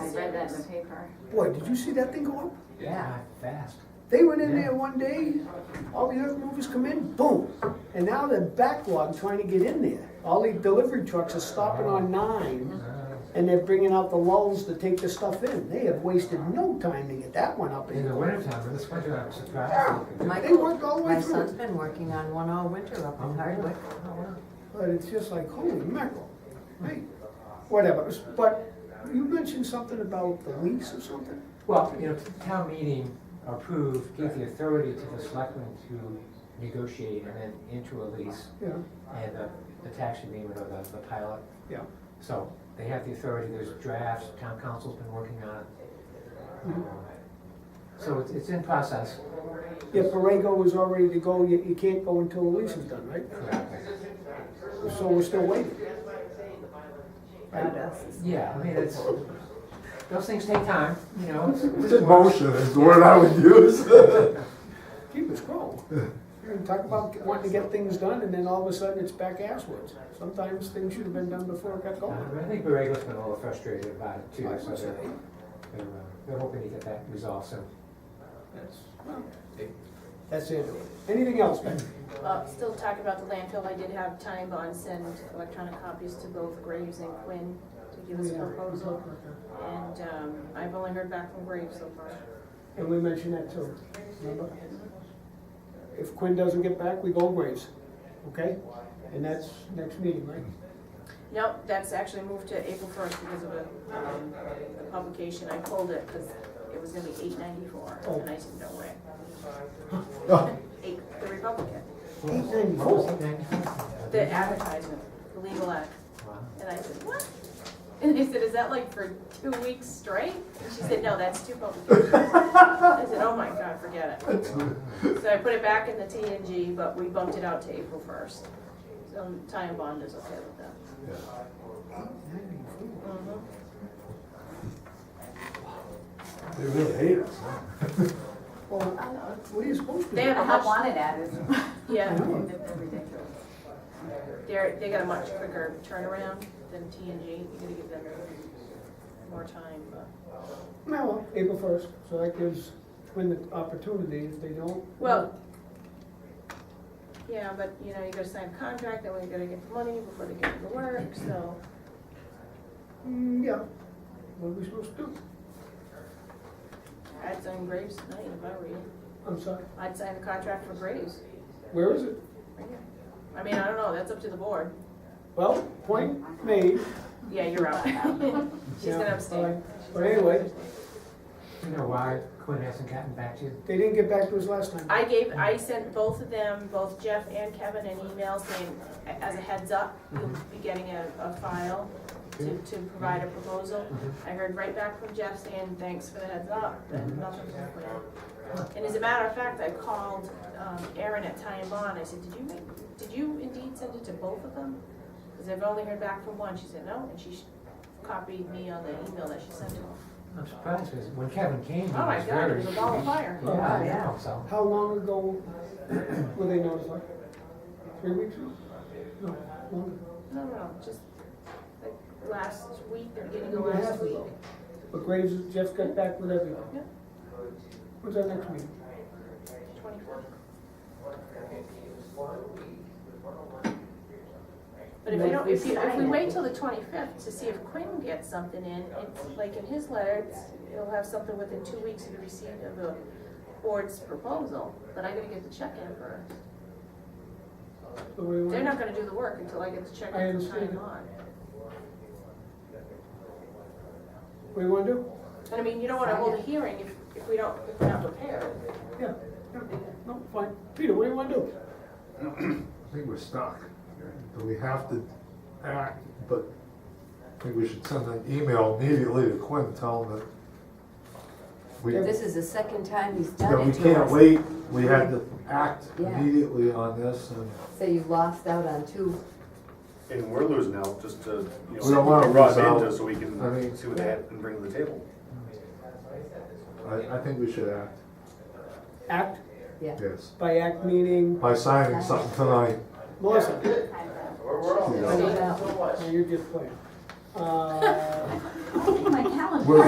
that in the paper. Boy, did you see that thing go up? Yeah, fast. They went in Yeah. there one day, all the earth movers come in, boom, and now they're backlog trying to get in there. All the delivery trucks are stopping on nine, Uh, and they're bringing out the lulls to take the stuff in. They have wasted no time to get that one up In the in. wintertime, this winter, I'm surprised. they could do it. They work all the way My through. Oh, son's been working on one all winter up in Hardwick. But it's just like, holy mackerel, right? Whatever, but you mentioned something about the lease or something? Well, you know, the town meeting approved, gave the authority to the selectmen to negotiate and then into a lease Yeah, and the, the tax agreement or the, the pilot. yeah. So they have the authority, there's drafts, town council's been working on it. So it's, it's in process. Yeah, Borrego was all ready to go, you, you can't go until the lease is done, right? So we're still waiting. Not us. Yeah, I mean, it's, those things take time, you know. it's- It's emotion is the word I would use. Keep us going. You're gonna talk about wanting to get things done, and then all of a sudden it's back asswards. Sometimes things should have been done before it got Uh, going. I think Borrego's been a little frustrated about it too, I so would say. they're, they're, uh, they're hoping to get that resolved soon. That's, well, that's it. Anything else, Ben? Well, Uh, still talking about the landfill, I did have Time Bond send electronic copies to both Graves and Quinn to give us a proposal. And um, I've only heard back from Graves so far. And we mentioned that too, remember? If Quinn doesn't get back, we go Graves, okay? And that's next meeting, right? Nope, that's actually moved to April first because of a, um, the publication, I pulled it because it was gonna be eight ninety-four, and I said, no way. Eight, the Republican, Eight What was ninety-four. it, 94? the advertisement, the legal ad, Wow. and I said, what? And they said, is that like for two weeks straight? And she said, no, that's two publications. I said, oh my god, forget it. So I put it back in the TNG, but we bumped it out to April first. So Ty and Bond is okay with that. They really hate us, huh? Well, what are you supposed to They do? have a I much wanted at it. Yeah, Mhm. they're ridiculous. They're, they got a much quicker turnaround than TNG, you gotta give them more time, but. No, well, April first, so that gives Quinn the opportunity, if they don't. Well, yeah, but, you know, you gotta sign a contract, then we gotta get the money before they get to the work, so. Mm, yeah, what are we supposed to do? I'd sign Graves tonight if I were you. I'm sorry, I'd sign the contract for Graves. where is it? right here. I mean, I don't know, that's up to the board. Well, point made, Yeah, you're out. She's Yeah, gonna abstain. fine. But anyway. Do you know why Quinn hasn't gotten back to you? they didn't get back to us last time. I gave, I sent both of them, both Jeff and Kevin, an email saying, as a heads up, you'll be getting a, a file to, to provide a proposal. I heard right back from Jeff saying, thanks for the heads up, but nothing from Quinn. And as a matter of fact, I called, um, Aaron at Ty and Bond, I said, did you make, did you indeed send it to both of them? Cause I've only heard back from one, she said no, and she sh- copied me on the email that she sent to him. I'm surprised, because when Kevin came, he Oh my was god, it very. was a ball of fire. Yeah, I know, so. How long ago were they notified? Three weeks ago? No, longer. No, no, no, just like last week, the beginning Year of and a last half week. ago. But Graves, Jeff got back with everyone. Yeah. When's our next meeting? 24. But if you don't, if you, if we wait till the twenty-fifth to see if Quinn gets something in, it's like in his letter, it's- he'll have something within two weeks of the receipt of the board's proposal, but I gotta get the check in first. So we want- They're not gonna do the work until I get the check I in from understand. time on. What do you wanna do? And I mean, you don't wanna hold a hearing if, if we don't, if we're not prepared. Yeah, yeah, no, fine. Peter, what do you wanna do? I think we're stuck. But we have to act, but I think we should send an email immediately to Quinn, tell him that we, This is the second time he's that done we it to can't us. wait. We had to act Yeah. immediately on this and So you lost out on two. And we're losing out just to, you We don't know, wanna raw lose out. data so we can I mean- see what they have and bring to the table. I, I think we should act, Act, Yeah. yes. by act meaning, By signing something tonight, Melissa, you know. Sold out. now you're just playing. Uh, My calendar. We're